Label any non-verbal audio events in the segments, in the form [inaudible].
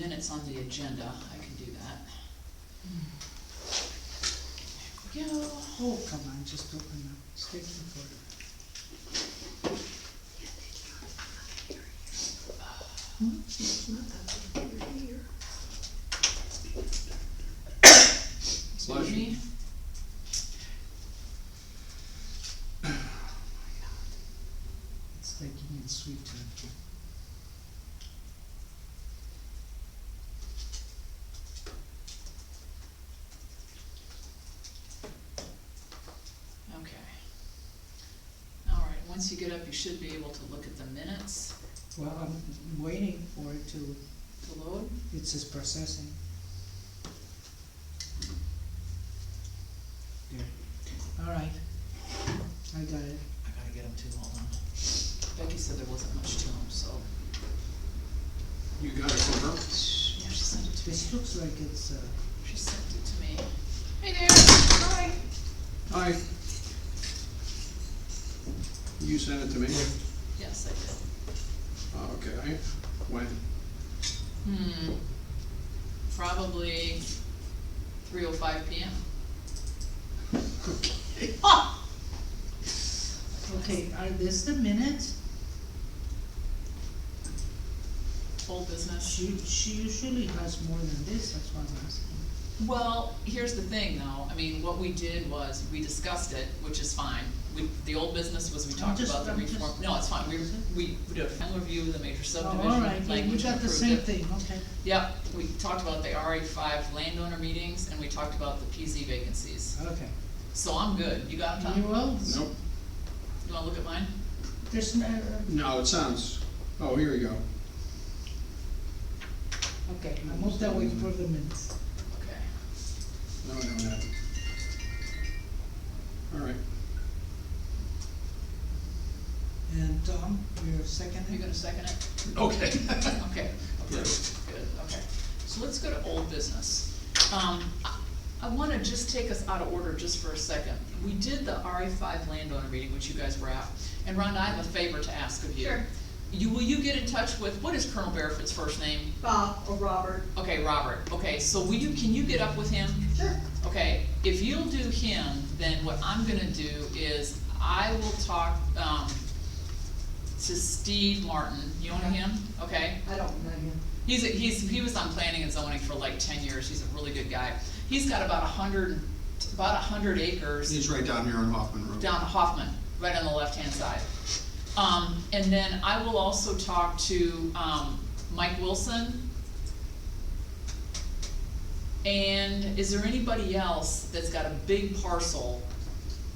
minutes on the agenda, I can do that. There we go. Oh, come on, just open the sticky folder. Excuse me? It's like you need sweet time. Okay. All right, once you get up, you should be able to look at the minutes Well, I'm waiting for it to, to load. it says processing. There. All right. I got it. I gotta get them too, hold on. Becky said there wasn't much to them, so. You got it from her? Yeah, she sent it to me. This looks like it's, uh, She sent it to me. Hey there, hi. Hi. You sent it to me? Yes, I did. Okay, when? Hmm, probably three oh five P [laughs] M. okay, are this the minutes? Old business. She, she usually has more than this, that's why I'm asking. Well, here's the thing though, I mean, what we did was, we discussed it, which is fine. We, the old business was we I'm talked just- about the I'm just- reform, no, it's fine, we, Is it? we did a final review of the major Oh, subdivision, All right, language yeah, we got the improved same it. thing, okay. Yep, we talked about the RA five landowner meetings, and we talked about the PZ vacancies, Okay. so I'm good, you got them, You Tom? will? Nope, You wanna look at mine? There's no, uh, no, it sounds, oh, here we go. okay, I move that we approve the minutes. Okay. No, no, no. All right, And Tom, you're Are you seconding? gonna second it? okay. [laughs] Okay, Yeah. good, okay. So let's go to old business. Um, I- I wanna just take us out of order just for a second. We did the RA five landowner meeting, which you guys were at, and Rhonda, I have a favor to ask of you. Sure. You, will you get in touch with, what is Colonel Barefoot's first name? Bob or Robert. Okay, Robert, okay, so will you, can you get up with him? Sure. Okay, if you'll do him, then what I'm gonna do is I will talk, um, to Steve Martin. You know him? Okay? I don't know him. He's, a- he's, he was on planning and zoning for like ten years, he's a really good guy. He's got about a hundred, about a hundred acres He's right down here on Hoffman Road. down Hoffman, right on the left-hand side. Um, and then I will also talk to, um, Mike Wilson. And is there anybody else that's got a big parcel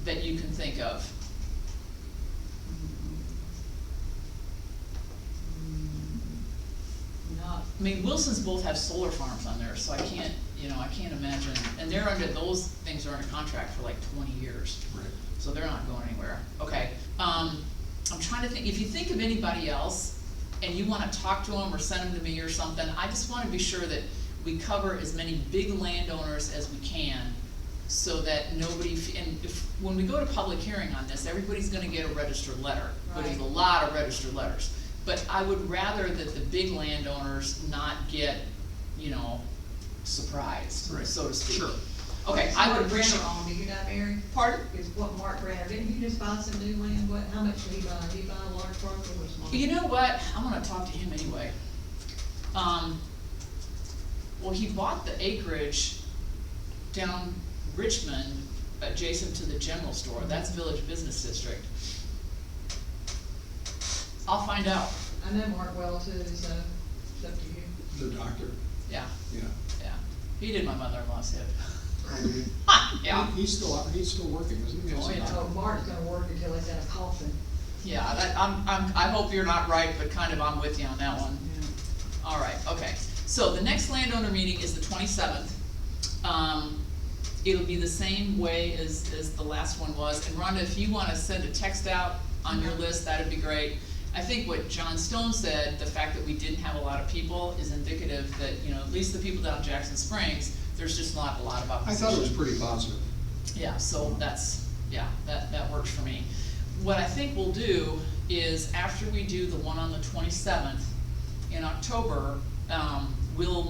that you can think of? Not, I mean, Wilsons both have solar farms on there, so I can't, you know, I can't imagine, and they're under, those things are under contract for like twenty years, Right. so they're not going anywhere, okay? Um, I'm trying to think, if you think of anybody else, and you wanna talk to them or send them to me or something, I just wanna be sure that we cover as many big landowners as we can, so that nobody, f- and if, when we go to public hearing on this, everybody's gonna get a registered letter, but there's a Right. lot of registered letters. But I would rather that the big landowners not get, you know, surprised, Right. so to speak. Sure. Okay, I would appreciate, Mark Brenner owned, did you not, Mary? pardon? Is what Mark Brenner, didn't he just buy some new land, what, how much did he buy, did he buy a large parcel or small? You know what, I'm gonna talk to him anyway. Um, well, he bought the acreage down Richmond, adjacent to the general store, that's Village Business District. I'll find out, I know Mark well too, so it's up to you. The doctor, yeah, yeah. yeah, he did my mother-in-law's hip, [laughs] Okay. yeah. He- He's still, he's still working, isn't he? Oh, yeah. Oh, Mark's gonna work until he's in a coffin. Yeah, that, I'm, I'm, I hope you're not right, but kind of I'm with you on that one. All right, okay. So the next landowner meeting is the twenty-seventh. Um, it'll be the same way as, as the last one was. And Rhonda, if you wanna send a text out on your list, that'd be great. I think what John Stone said, the fact that we didn't have a lot of people is indicative that, you know, at least the people down in Jackson Springs, there's just not a lot of I opposition. thought it was pretty positive. Yeah, so that's, yeah, that, that works for me. What I think we'll do is after we do the one on the twenty-seventh in October, um, will